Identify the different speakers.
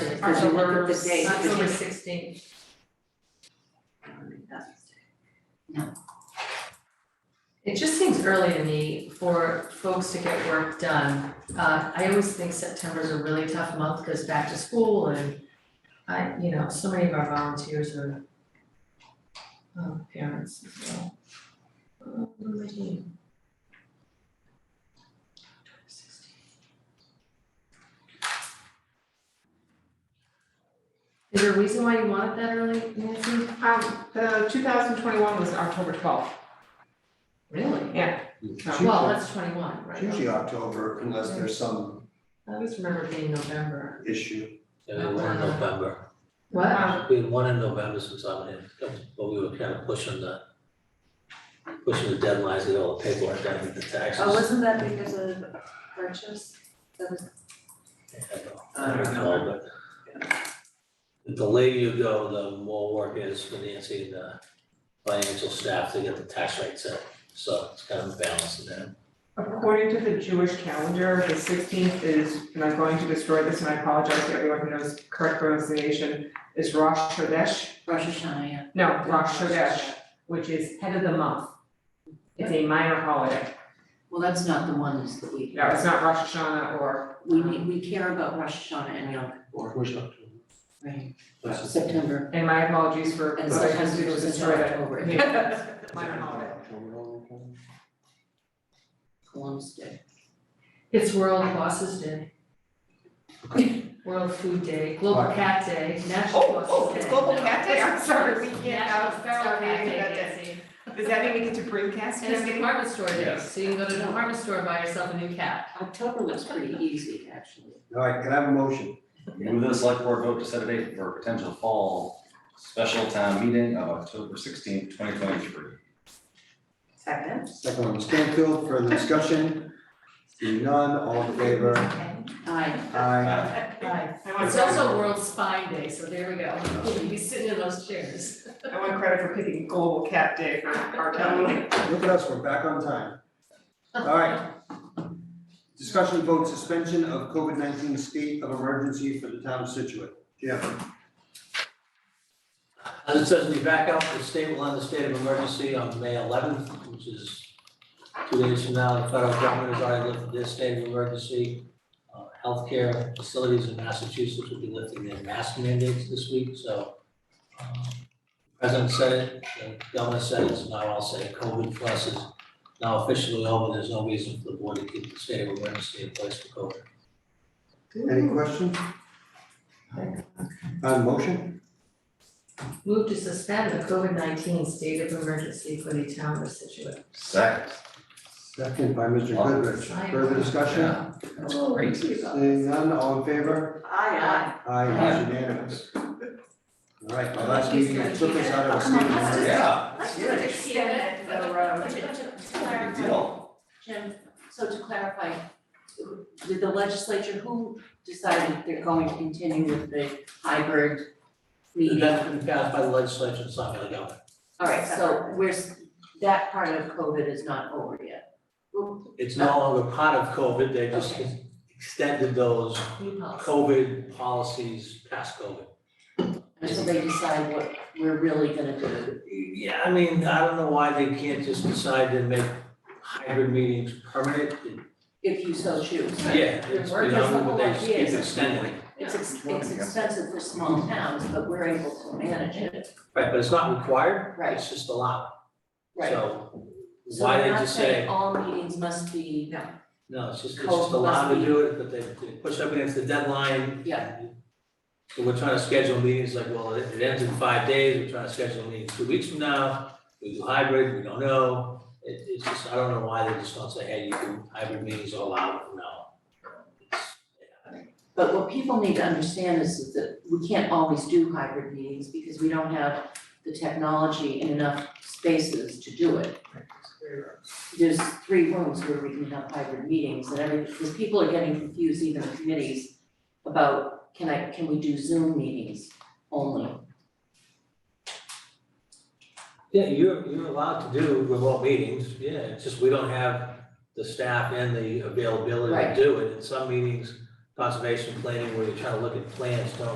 Speaker 1: Or to look at the date,
Speaker 2: October
Speaker 1: because-
Speaker 2: sixteenth. It just seems early to me for folks to get work done. Uh, I always think September is a really tough month because back to school and I, you know, so many of our volunteers are um, parents as well. Uh, what am I doing? Is there a reason why you want it that early, Nancy?
Speaker 3: Um, the two thousand twenty-one was October twelfth.
Speaker 2: Really?
Speaker 4: It's
Speaker 2: Well,
Speaker 4: usually,
Speaker 2: that's twenty-one,
Speaker 4: it's
Speaker 2: right?
Speaker 4: usually October unless there's some
Speaker 2: I always remember it being November.
Speaker 4: issue.
Speaker 5: Yeah, we had one in November,
Speaker 2: What?
Speaker 3: Um,
Speaker 5: we had one in November since I'm in, but we were kind of pushing the, pushing the deadlines, get all the paperwork done with the taxes.
Speaker 1: Oh, wasn't that because of purchase? That was,
Speaker 5: I don't know, I don't recall, but the later you go, the more work is for Nancy and the financial staff to get the tax rate set, so it's kind of a balance in that.
Speaker 3: According to the Jewish calendar, the sixteenth is, and I'm going to destroy this and I apologize to everyone who knows correct pronunciation, is Rosh Chodesh.
Speaker 1: Rosh Hashanah, yeah.
Speaker 3: No, Rosh Chodesh, which is head of the month. It's a minor holiday.
Speaker 6: Well, that's not the one that's that we,
Speaker 3: No, it's not Rosh Hashanah or,
Speaker 6: we need, we care about Rosh Hashanah and Yom Kippur,
Speaker 4: Where's October?
Speaker 6: right?
Speaker 4: That's-
Speaker 6: September,
Speaker 3: and my apologies for,
Speaker 6: and
Speaker 3: what I just
Speaker 6: sometimes it
Speaker 3: did was
Speaker 6: was in
Speaker 3: destroy that.
Speaker 6: October,
Speaker 3: Yeah. Minor holiday.
Speaker 4: October,
Speaker 6: Columbus Day.
Speaker 2: It's World Bosses Day. World Food Day, Global
Speaker 4: Right.
Speaker 2: Cat Day, National
Speaker 3: Oh,
Speaker 2: Bosses Day.
Speaker 3: I'm sorry, we
Speaker 2: National Feral Cat Day,
Speaker 3: that day.
Speaker 2: Nancy.
Speaker 3: Does that mean we get to broadcast
Speaker 2: And it's
Speaker 3: this?
Speaker 2: department store day,
Speaker 5: Yes.
Speaker 2: so you can go to the department store and buy yourself a new cat.
Speaker 6: October looks pretty easy, actually.
Speaker 4: All right, can I have a motion?
Speaker 7: Move the select board vote to set a date for potential fall special town meeting of October sixteenth, twenty twenty-three.
Speaker 1: Second.
Speaker 4: Second one, Stanfield, further discussion? Seeing none, all in favor?
Speaker 6: I,
Speaker 4: Aye.
Speaker 2: Right.
Speaker 3: I want
Speaker 2: It's
Speaker 3: credit-
Speaker 2: also World Spine Day, so there we go, we'll be sitting in those chairs.
Speaker 3: I want credit for picking Global Cat Day for our town.
Speaker 4: Look at us, we're back on time. All right. Discussion vote suspension of COVID-19 state of emergency for the town of Situate. Jim,
Speaker 5: As it says, we back out, the state will end the state of emergency on May eleventh, which is two days from now, the federal government has already lifted their state of emergency. Uh, Healthcare facilities in Massachusetts will be lifting their mask mandates this week, so um, President said it, the governor said it, so now I'll say COVID plus is now officially over, there's no reason for the board to keep the state of emergency in place for COVID.
Speaker 4: any questions? On motion?
Speaker 2: Move to suspend the COVID nineteen state of emergency for the town of Situate.
Speaker 7: Second.
Speaker 4: Second by Mr. Goodrich. Further discussion?
Speaker 7: That's great.
Speaker 4: Seeing none, all in favor?
Speaker 1: Aye,
Speaker 4: Aye, it is unanimous. All right, my last meeting, it took us out of a state of emergency.
Speaker 7: Yeah,
Speaker 1: Let's do it, extend it for the
Speaker 6: to,
Speaker 1: road.
Speaker 6: to to
Speaker 7: good
Speaker 6: clarify,
Speaker 7: deal.
Speaker 6: Jim, so to clarify, did the legislature, who decided they're going to continue with the hybrid meeting?
Speaker 5: That's been passed by the legislature, it's not by the governor.
Speaker 6: All right, so we're, s- that part of COVID is not over yet.
Speaker 5: It's no longer part of COVID, they just extended those
Speaker 2: New policy.
Speaker 5: COVID policies past COVID.
Speaker 6: Until they decide what we're really gonna do.
Speaker 5: Yeah, I mean, I don't know why they can't just decide to make hybrid meetings permanent.
Speaker 6: if you so choose.
Speaker 5: Yeah,
Speaker 6: Your
Speaker 5: it's,
Speaker 6: work
Speaker 5: you
Speaker 6: is
Speaker 5: know,
Speaker 6: the whole
Speaker 5: but they just
Speaker 6: idea is-
Speaker 5: keep extending.
Speaker 6: It's ex- it's expensive for small towns, but we're able to manage it,
Speaker 5: Right, but it's not required,
Speaker 6: Right.
Speaker 5: it's just allowed.
Speaker 6: right?
Speaker 5: So
Speaker 6: So
Speaker 5: why
Speaker 6: we're
Speaker 5: did
Speaker 6: not
Speaker 5: you
Speaker 6: saying
Speaker 5: say,
Speaker 6: all meetings must be,
Speaker 5: no, it's just, it's
Speaker 6: COVID
Speaker 5: just allowed
Speaker 6: must
Speaker 5: to
Speaker 6: be-
Speaker 5: do it, but they they push up against the deadline.
Speaker 6: Yeah.
Speaker 5: So we're trying to schedule meetings like, well, it it ends in five days, we're trying to schedule meetings two weeks from now. We do hybrid, we don't know. It, it's just, I don't know why they just don't say, hey, you can, hybrid meetings are allowed from now. on. It's-
Speaker 6: but what people need to understand is that we can't always do hybrid meetings because we don't have the technology and enough spaces to do it. There's three rooms where we can have hybrid meetings and every, because people are getting confused, even the committees, about can I, can we do Zoom meetings only?
Speaker 5: Yeah, you're, you're allowed to do remote meetings, yeah, it's just we don't have the staff and the availability
Speaker 6: Right.
Speaker 5: to do it. In some meetings, conservation planning, where you're trying to look at plans, don't